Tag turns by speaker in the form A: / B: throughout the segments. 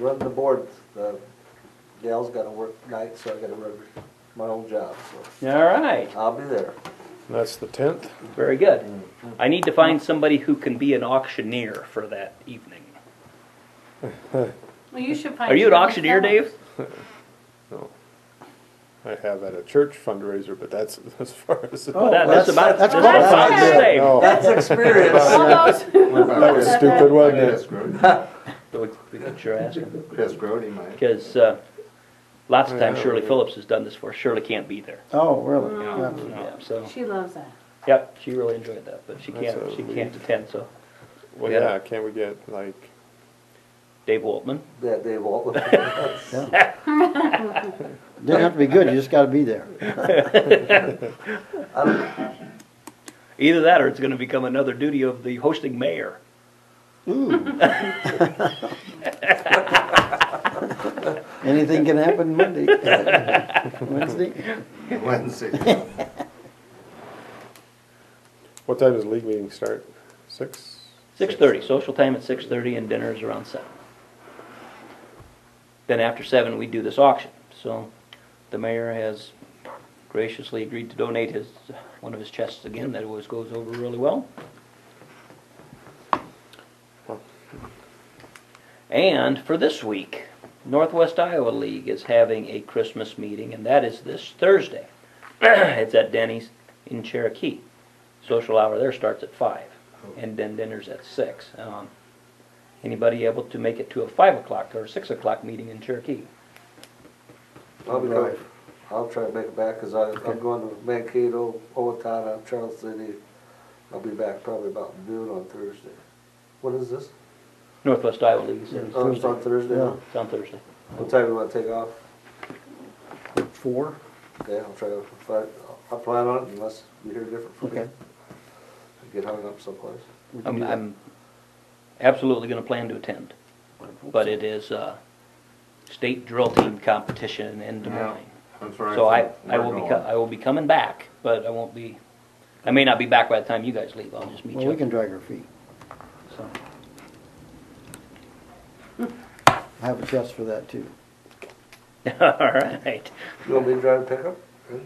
A: Run the board, the gal's gotta work night, so I gotta run my own job, so
B: All right,
A: I'll be there.
C: That's the tenth.
B: very good. I need to find somebody who can be an auctioneer for that evening.
D: Well, you should find.
B: Are you an
D: someone
B: auctioneer,
D: talented.
B: Dave?
C: I have at a church fundraiser, but that's as far as.
B: Well, that- Oh, That's
A: that's-
B: about, that's
A: that's
B: about
D: what
B: the
D: I said.
B: same.
C: No,
A: That's experience.
D: All those,
C: that was stupid, wasn't it?
B: Good you're asking.
E: Yes, Grody might.
B: Because uh, lots of times Shirley Phillips has done this for us. Shirley can't be there.
F: Oh, really?
B: you know, So,
D: she loves that.
B: yep, she really enjoyed that, but she can't,
C: That's a
B: she
C: weird-
B: can't attend, so.
C: Well, yeah, can't we get like,
B: Dave Waltman.
A: That day, Walt.
F: Didn't have to be good, you just gotta be there.
B: Either that or it's gonna become another duty of the hosting mayor.
F: Hmm. Anything can happen Monday, Wednesday.
E: Wednesday.
C: what time does league meeting start? Six?
B: Six-thirty, social time at six-thirty and dinner is around seven. Then after seven, we do this auction, so the mayor has graciously agreed to donate his, one of his chests again, that always goes over really well. And for this week, Northwest Iowa League is having a Christmas meeting, and that is this Thursday. It's at Denny's in Cherokee. Social hour there starts at five
F: Oh.
B: and then dinner's at six. Um, Anybody able to make it to a five o'clock or six o'clock meeting in Cherokee?
A: I'll be there. I'll try to make it back, cause I, I'm going to Mankato, Owatonna, Charles City. I'll be back probably about noon on Thursday. What is this?
B: Northwest Iowa League is in-
A: Oh, it's on Thursday?
F: Yeah.
B: it's on Thursday.
A: What time do you wanna take off?
F: Four?
A: Okay, I'll try to, if I, I'll plan on it unless you hear different from me.
F: Okay.
A: I Get hung up someplace.
F: We
D: Um,
F: can
B: I'm,
F: do that.
B: I'm absolutely gonna plan to attend, but it is, uh, state drill team competition in Des
E: Yeah.
B: Moines.
E: That's right.
B: So I, I will be, co- I will be coming back, but I won't be, I may not be back by the time you guys leave, I'll just meet
F: Well, we
B: you.
F: can drag our feet,
B: So,
F: I have a chest for that too.
B: All right.
A: You want me to drive a pickup?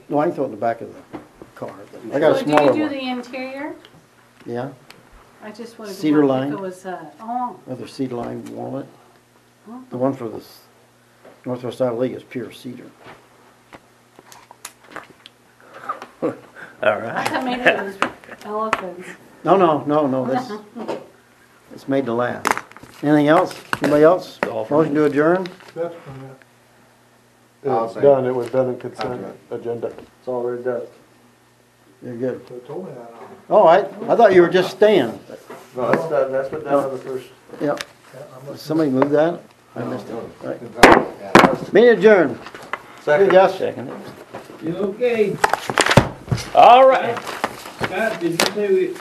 F: No, I can throw it in the back of the car, I got a
D: So
F: smaller
D: do you do
F: one,
D: the interior?
F: yeah,
D: I just wanted to.
F: Cedar
D: know if
F: line?
D: It was, uh, oh,
F: another cedar lime walnut. The one for the s- Northwest Iowa League is pure cedar.
B: All right.
D: I thought maybe it was elephants.
F: No, no, no, no, this, it's made to last. Anything else, anybody else?
B: all for
F: Motion to adjourn?
E: I'll
C: It's
E: say-
C: done, it was done in consent agenda.
A: It's already done.
F: You're good. Oh, I, I thought you were just staying.
A: No, that's done, that's been done on the first.
F: Yep. Somebody move that? I missed it.
E: Yeah.
F: Meeting adjourned.
A: Second.
F: Good, Gus.
B: Second it.
G: You okay?
B: All right.
G: Scott, did you say we,